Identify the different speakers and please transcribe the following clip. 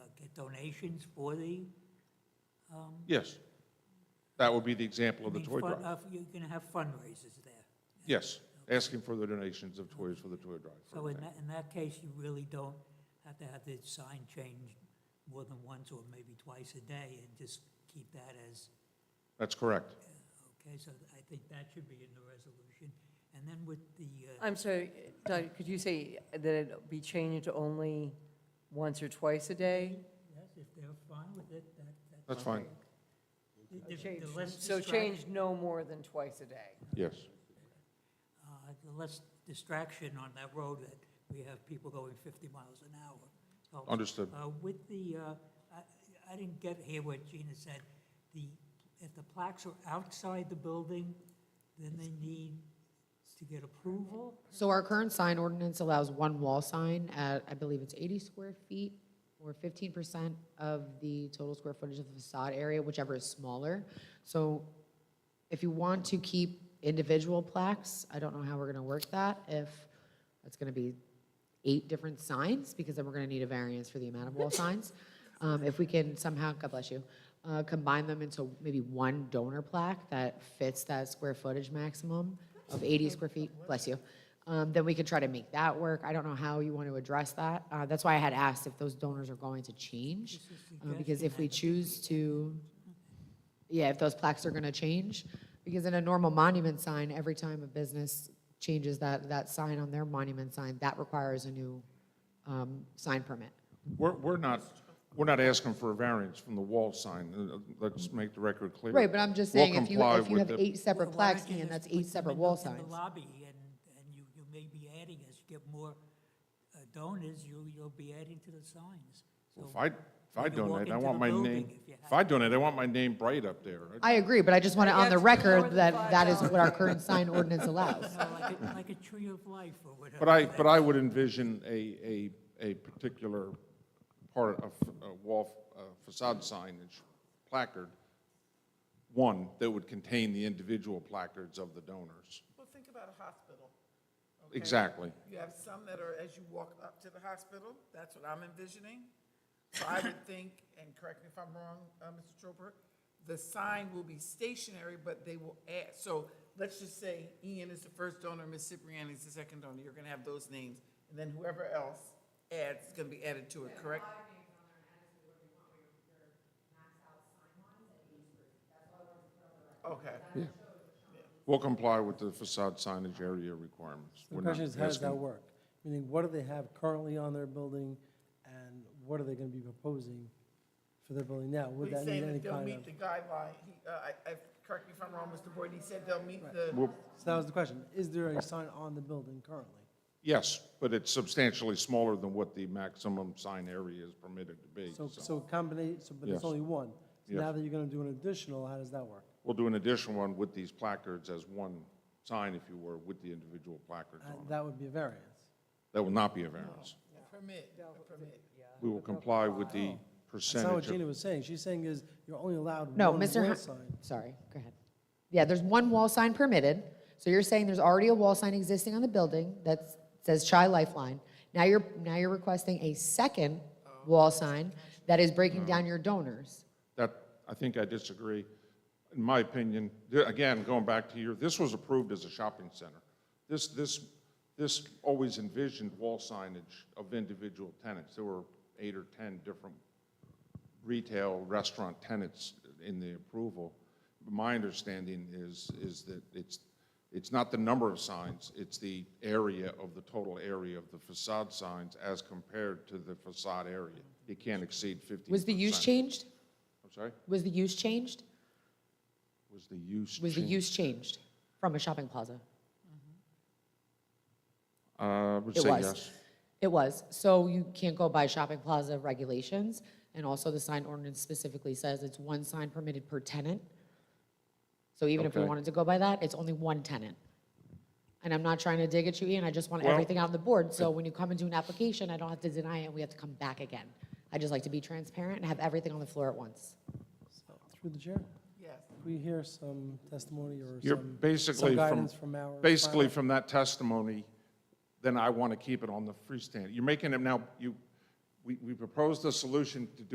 Speaker 1: uh, donations for the,
Speaker 2: Yes. That would be the example
Speaker 1: I
Speaker 2: of the
Speaker 1: mean,
Speaker 2: toy
Speaker 1: fun-
Speaker 2: drive.
Speaker 1: uh, you're going to have fundraisers there.
Speaker 2: Yes, asking for the donations of toys for the toy drive. for
Speaker 1: So in
Speaker 2: example.
Speaker 1: that, in that case, you really don't have to have the sign changed more than once or maybe twice a day and just keep that as,
Speaker 2: That's correct.
Speaker 1: okay, so I think that should be in the resolution. And then with the, uh,
Speaker 3: I'm sorry, Doug, could you say that it be changed only once or twice a day?
Speaker 1: yes, if they're fine with it, that, that's.
Speaker 2: That's fine.
Speaker 1: The- the- the
Speaker 3: Change-
Speaker 1: less
Speaker 3: So
Speaker 1: distract-
Speaker 3: change no more than twice a day.
Speaker 2: Yes,
Speaker 1: uh, The less distraction on that road that we have people going 50 miles an hour. So,
Speaker 2: understood.
Speaker 1: Uh, With the, uh, I I didn't get here what Gina said, the, if the plaques are outside the building, then they need to get approval?
Speaker 4: So our current sign ordinance allows one wall sign at, I believe it's 80 square feet or 15% of the total square footage of the facade area, whichever is smaller. So if you want to keep individual plaques, I don't know how we're going to work that, if it's going to be eight different signs, because then we're going to need a variance for the amount of wall signs. Um, If we can somehow, God bless you, uh, combine them into maybe one donor plaque that fits that square footage maximum of 80 square feet, bless you, um, then we can try to make that work. I don't know how you want to address that. Uh, That's why I had asked if those donors are going to change, uh, because if we choose to yeah, if those plaques are gonna change, because in a normal monument sign, every time a business changes that, that sign on their monument sign, that requires a new, um, sign permit.
Speaker 2: We're, we're not, we're not asking for a variance from the wall sign. Uh, uh, Let's make the record clear.
Speaker 4: Right, but I'm just
Speaker 2: We'll
Speaker 4: saying, if you,
Speaker 2: comply
Speaker 4: if you
Speaker 2: with
Speaker 4: have
Speaker 2: the-
Speaker 4: eight separate
Speaker 1: Well, why
Speaker 4: plaques,
Speaker 1: don't you
Speaker 4: Ian,
Speaker 1: just
Speaker 4: that's
Speaker 1: put
Speaker 4: eight
Speaker 1: them
Speaker 4: separate
Speaker 1: in
Speaker 4: wall
Speaker 1: the- In
Speaker 4: signs.
Speaker 1: the lobby, and, and you, you may be adding, as you get more uh, donors, you, you'll be adding to the signs. So
Speaker 2: If I, if I
Speaker 1: when you walk
Speaker 2: donate, I
Speaker 1: into
Speaker 2: want
Speaker 1: the
Speaker 2: my
Speaker 1: building,
Speaker 2: name,
Speaker 1: if you have-
Speaker 2: if I donate, I want my name bright up there.
Speaker 4: I agree, but I just want it
Speaker 3: Yeah,
Speaker 4: on the
Speaker 3: it's more
Speaker 4: record
Speaker 3: than
Speaker 4: that
Speaker 3: five
Speaker 4: that is what our
Speaker 3: dollars.
Speaker 4: current sign ordinance allows.
Speaker 1: you know, Like, a- like a tree of life or whatever.
Speaker 2: But I, but I would envision a, a, a particular part of a wall uh, facade signage placard, one that would contain the individual placards of the donors.
Speaker 5: Well, think about a hospital. okay?
Speaker 2: Exactly.
Speaker 5: You have some that are, as you walk up to the hospital, that's what I'm envisioning. So I would think, and correct me if I'm wrong, uh, Mr. Troper, the sign will be stationary, but they will add, so let's just say Ian is the first donor, Ms. Cipriani is the second donor, you're gonna have those names, and then whoever else adds is gonna be added to it, correct? Okay.
Speaker 2: We'll comply with the facade signage area requirements.
Speaker 6: The
Speaker 2: We're not
Speaker 6: question is, how does that
Speaker 2: asking-
Speaker 6: work? Meaning, what do they have currently on their building, and what are they gonna be proposing for their building now? Would
Speaker 5: He's
Speaker 6: that need
Speaker 5: saying
Speaker 6: any
Speaker 5: that they'll
Speaker 6: kind
Speaker 5: meet
Speaker 6: of?
Speaker 5: the guideline, he, uh, I, I, correct me if I'm wrong, Mr. Boyd, he said they'll meet the.
Speaker 2: We'll-
Speaker 6: So that was the question, is there a sign on the building currently?
Speaker 2: Yes, but it's substantially smaller than what the maximum sign area is permitted to be.
Speaker 6: So,
Speaker 2: so.
Speaker 6: so combination, so, but
Speaker 2: Yes.
Speaker 6: it's only one. So now
Speaker 2: Yes.
Speaker 6: that you're gonna do an additional, how does that work?
Speaker 2: We'll do an additional one with these placards as one sign, if you were, with the individual placards
Speaker 6: Uh,
Speaker 2: on it.
Speaker 6: That would be a variance.
Speaker 2: That will not be a variance.
Speaker 5: Permit, the permit.
Speaker 2: We will comply with the
Speaker 6: That's not what
Speaker 2: percentage
Speaker 6: Gina
Speaker 2: of,
Speaker 6: was saying. She's saying is, you're only allowed one
Speaker 4: No,
Speaker 6: wall
Speaker 4: Mr. Ho-
Speaker 6: sign.
Speaker 4: Sorry, go ahead. Yeah, there's one wall sign permitted, so you're saying there's already a wall sign existing on the building that says Chi Lifeline. Now you're, now you're requesting a second
Speaker 6: Oh.
Speaker 4: wall sign that is breaking down your donors.
Speaker 2: that, I think I disagree. In my opinion, th- again, going back to your, this was approved as a shopping center. This, this, this always envisioned wall signage of individual tenants. There were eight or 10 different retail restaurant tenants in the approval. My understanding is, is that it's, it's not the number of signs, it's the area of the total area of the facade signs as compared to the facade area. It can't exceed 15%.
Speaker 4: Was the use changed?
Speaker 2: I'm sorry?
Speaker 4: Was the use changed?
Speaker 2: Was the use
Speaker 4: Was the
Speaker 2: changed?
Speaker 4: use changed from a shopping plaza?
Speaker 2: Uh, I would
Speaker 4: It
Speaker 2: say
Speaker 4: was.
Speaker 2: yes.
Speaker 4: It was. So you can't go by shopping plaza regulations, and also the sign ordinance specifically says it's one sign permitted per tenant. So even if we
Speaker 2: Okay.
Speaker 4: wanted to go by that, it's only one tenant. And I'm not trying to dig at you, Ian, I just want
Speaker 2: Well,
Speaker 4: everything on the board, so when you come and do an application, I don't have to deny it, we have to come back again. I just like to be transparent and have everything on the floor at once.
Speaker 6: So, Through the chair,
Speaker 5: Yes.
Speaker 6: could we hear some testimony or
Speaker 2: You're
Speaker 6: some-
Speaker 2: basically
Speaker 6: some
Speaker 2: from,
Speaker 6: guidance from our.
Speaker 2: basically
Speaker 6: bylaw?
Speaker 2: from that testimony, then I want to keep it on the freestanding. You're making it now, you, we, we proposed a solution to do